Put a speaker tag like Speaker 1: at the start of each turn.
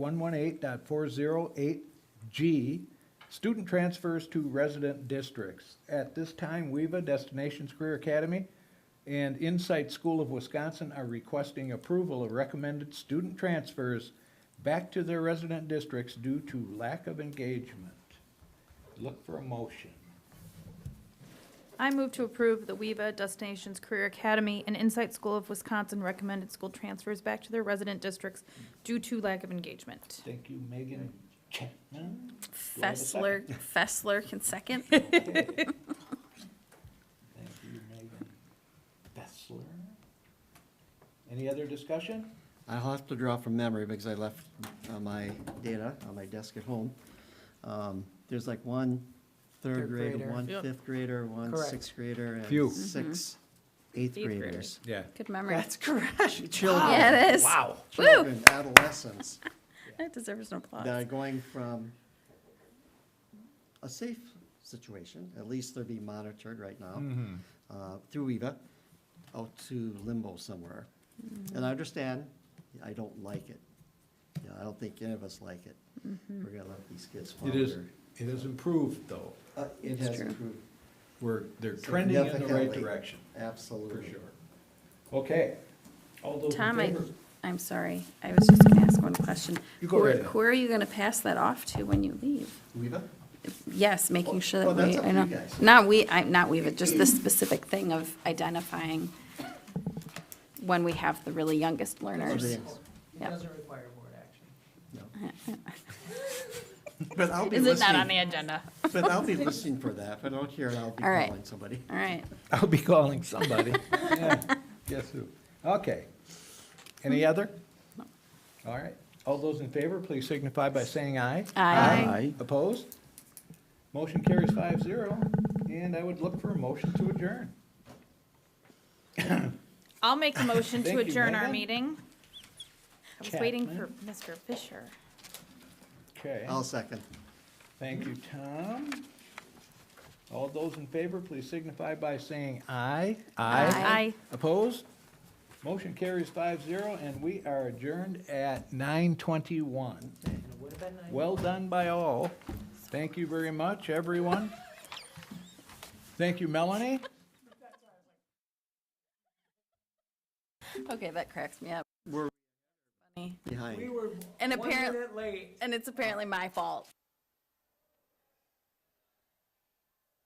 Speaker 1: 118.408G, student transfers to resident districts. At this time, WEVA, Destinations Career Academy, and Insight School of Wisconsin are requesting approval of recommended student transfers back to their resident districts due to lack of engagement. Look for a motion.
Speaker 2: I move to approve the WEVA Destinations Career Academy and Insight School of Wisconsin recommended school transfers back to their resident districts due to lack of engagement.
Speaker 1: Thank you, Megan Chapman. Do I have a
Speaker 3: Fessler, Fessler can second.
Speaker 1: Okay. Thank you, Megan Bessler. Any other discussion?
Speaker 4: I'll have to draw from memory because I left uh, my data on my desk at home. Um, There's like one
Speaker 5: Third
Speaker 4: third grader,
Speaker 5: grader.
Speaker 4: one
Speaker 5: Yep.
Speaker 4: fifth grader, one
Speaker 5: Correct.
Speaker 4: sixth grader,
Speaker 1: Phew.
Speaker 4: and six eighth
Speaker 3: Eighth graders.
Speaker 4: graders.
Speaker 1: Yeah.
Speaker 3: Good memory.
Speaker 5: That's correct.
Speaker 4: Children,
Speaker 3: Yeah, it is.
Speaker 1: Wow.
Speaker 3: Woo!
Speaker 4: children, adolescents
Speaker 3: That deserves an
Speaker 4: that are
Speaker 3: applause.
Speaker 4: going from a safe situation, at least they're being monitored right
Speaker 1: Mm-hmm.
Speaker 4: now, uh, through EVA, out to limbo somewhere.
Speaker 3: Mm-hmm.
Speaker 4: And I understand, I don't like it. You know, I don't think any of us like it.
Speaker 3: Mm-hmm.
Speaker 4: We're gonna let these kids
Speaker 1: It
Speaker 4: flounder.
Speaker 1: is, it is improved, though.
Speaker 4: Uh, It
Speaker 3: It's
Speaker 4: has
Speaker 3: true.
Speaker 4: improved,
Speaker 1: We're, they're trending in the right
Speaker 4: Significantly.
Speaker 1: direction, for
Speaker 4: absolutely.
Speaker 1: sure. Okay. All those in
Speaker 3: Tom, I,
Speaker 1: favor?
Speaker 3: I'm sorry. I was just gonna ask one question.
Speaker 1: You go
Speaker 3: Who-
Speaker 1: right ahead.
Speaker 3: Who are you gonna pass that off to when you leave?
Speaker 4: Weeva?
Speaker 3: Yes, making sure
Speaker 4: Oh,
Speaker 3: that
Speaker 4: that's
Speaker 3: we,
Speaker 4: up
Speaker 3: I
Speaker 4: to you
Speaker 3: know.
Speaker 4: guys.
Speaker 3: Not we, I, not we, but just this specific thing of identifying when we have the really youngest learners.
Speaker 5: It
Speaker 3: Yeah.
Speaker 5: doesn't require board action.
Speaker 4: But I'll be
Speaker 3: Is it not on the
Speaker 4: listening,
Speaker 3: agenda?
Speaker 4: but I'll be listening for that, but I don't care, I'll be
Speaker 3: All right.
Speaker 4: calling somebody.
Speaker 3: All right.
Speaker 1: I'll be calling somebody. Yeah, Guess who? Okay. Any other? All right. All those in favor, please signify by saying aye.
Speaker 3: Aye.
Speaker 1: Opposed? Motion carries five zero, and I would look for a motion to adjourn.
Speaker 2: I'll make a motion to
Speaker 1: Thank you,
Speaker 2: adjourn our
Speaker 1: Megan.
Speaker 2: meeting. I was waiting for
Speaker 1: Chapman.
Speaker 2: Mr. Fisher.
Speaker 1: Okay,
Speaker 4: I'll second.
Speaker 1: thank you, Tom. All those in favor, please signify by saying aye.
Speaker 2: Aye.
Speaker 1: Opposed? Motion carries five zero, and we are adjourned at nine twenty-one.
Speaker 5: And it would have been nice.
Speaker 1: Well done by all. Thank you very much, everyone. Thank you, Melanie.
Speaker 3: Okay, that cracks me up.
Speaker 4: We're
Speaker 3: Funny.
Speaker 4: behind.
Speaker 5: We were
Speaker 3: And
Speaker 5: one
Speaker 3: apparent-
Speaker 5: minute late.
Speaker 3: And it's apparently my fault.